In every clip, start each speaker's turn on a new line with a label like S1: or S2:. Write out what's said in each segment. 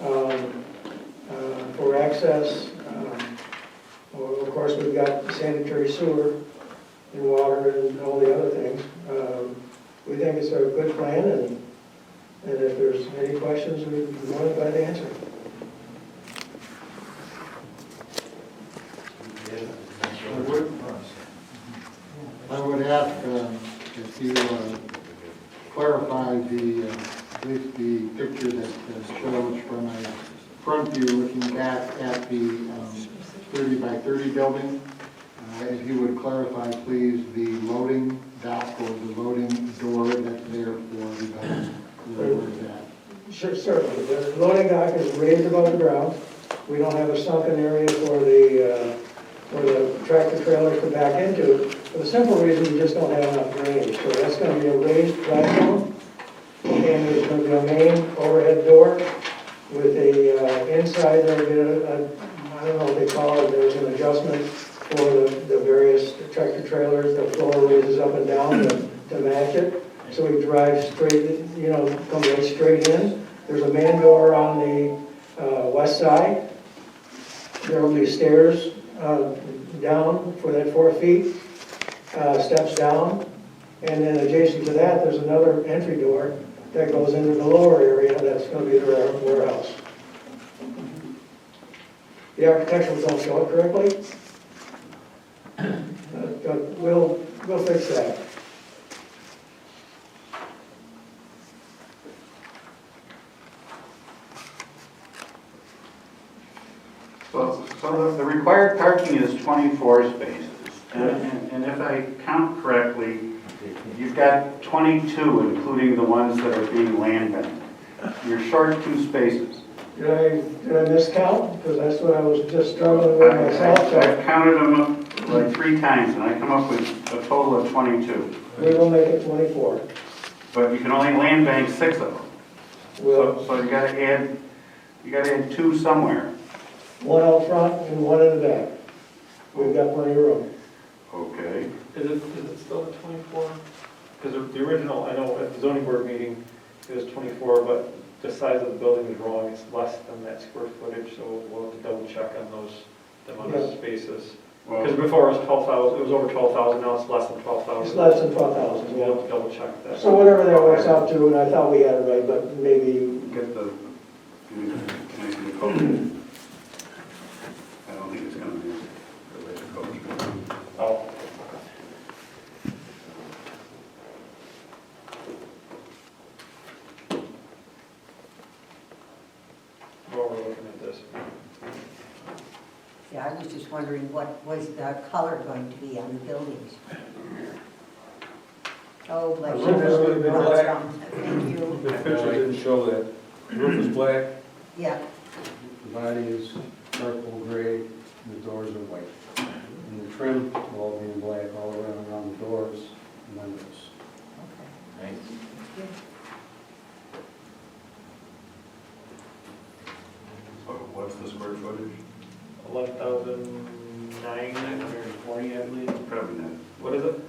S1: um, uh, access. um, well, Of course, we've got sanitary sewer and water and all the other things. Um, We think it's a good plan, and and if there's any questions, we'd be more than glad to answer.
S2: I would, I would ask uh, if you uh, clarify the, uh, at least the picture that uh, shows from a front view looking back at the um, 30 by 30 building. Uh, If you would clarify, please, the loading dock or the loading door that's there for the, building, where is that?
S1: Sure, certainly. The loading dock is raised above the ground. We don't have a sunken area for the, uh, for the tractor trailers to back into, for the simple reason we just don't have enough range. So that's gonna be a raised platform, and there's gonna be a main overhead door with a, uh, inside, there'll be a, a- I don't know what they call it, there's an adjustment for the, the various tractor trailers, the floor raises up and down to, to match it. So we drive straight, you know, come right straight in. There's a man door on the, uh, west side. There will be stairs, uh, down for that four feet, uh, steps down. And then adjacent to that, there's another entry door that goes into the lower area, that's gonna be the ware- warehouse. The architecturals don't show it correctly. Uh, But we'll, we'll fix that.
S3: So, so the- the required parking is 24 spaces. And- And and if I count correctly, you've got 22, including the ones that are being land banked. You're short two spaces.
S1: Did I, did I miscount? Because that's what I was just struggling
S3: I-
S1: with myself,
S3: I-
S1: so
S3: I've counted them like three times, and I come up with a total of 22.
S1: we will make it twenty-four.
S3: But you can only land bank six of them.
S1: We'll,
S3: So so you gotta add, you gotta add two somewhere.
S1: one out front and one in the back. We've got plenty of room.
S3: Okay.
S4: Is it, is it still at twenty-four? Because the original, I know at the zoning board meeting, it was twenty-four, but the size of the building is wrong, it's less than that square footage, so we'll have to double check on those, the amount of spaces. Because
S3: Well,
S4: before it was twelve thousand, it was over twelve thousand, now it's less than twelve
S1: It's
S4: thousand.
S1: less than twelve thousand,
S4: We'll have to double check that.
S1: So whatever that works out to, and I thought we had it right, but maybe you
S3: get the, give me the- give me the code. I don't think it's gonna be related to code.
S4: Oh, While we're looking at this.
S5: Yeah, I was just wondering what was the color going to be on the buildings? Oh, bless
S6: The
S5: you.
S6: roof is gonna be
S5: Lots
S6: black.
S5: of- Thank you,
S6: The picture didn't show that. The Roof is black,
S5: yeah,
S6: the body is charcoal gray, and the doors are white. And the trim will all be in black all around, around the doors and windows.
S3: So what's the square footage?
S4: Eleven thousand nine hundred and forty, I believe.
S3: Probably not.
S4: What is it?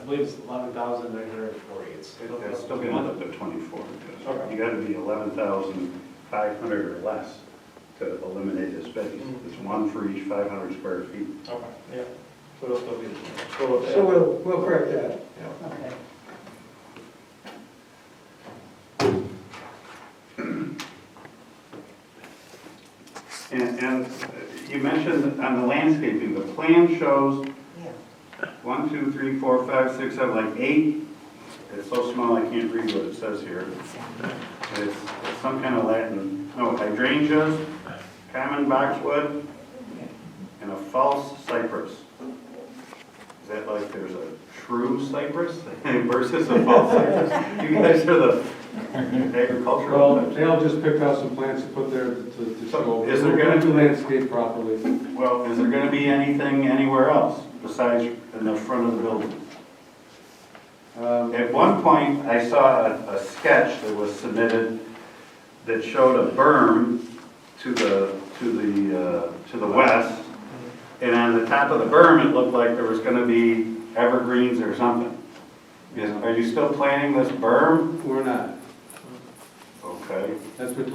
S4: I believe it's eleven thousand nine hundred and forty. It's.
S3: That's still gonna end up at twenty-four, because
S4: Okay.
S3: you gotta be eleven thousand five hundred or less to eliminate a space.
S4: Mm.
S3: It's one for each five hundred square feet.
S4: Okay, yeah. So it'll still be. So
S1: So we'll, we'll correct that.
S5: okay.
S3: And, and you mentioned on the landscaping, the plan shows
S5: Yeah.
S3: one, two, three, four, five, six, seven, like eight. It's so small, I can't read what it says here. It's it's some kind of Latin, no, hydrangeas, common boxwood, and a false cypress. Is that like there's a true cypress versus a false cypress? You guys are the
S6: Well,
S3: agricultural.
S6: they'll just pick out some plants to put there to, to show.
S3: Is there gonna-
S6: do landscape properly?
S3: Well, is there gonna be anything anywhere else besides in the front of the building?
S6: Um,
S3: At one point, I saw a, a sketch that was submitted that showed a berm to the, to the, uh, to the west. And on the top of the berm, it looked like there was gonna be evergreens or something. Is, are you still planning this berm?
S6: We're not.
S3: Okay.
S6: That's between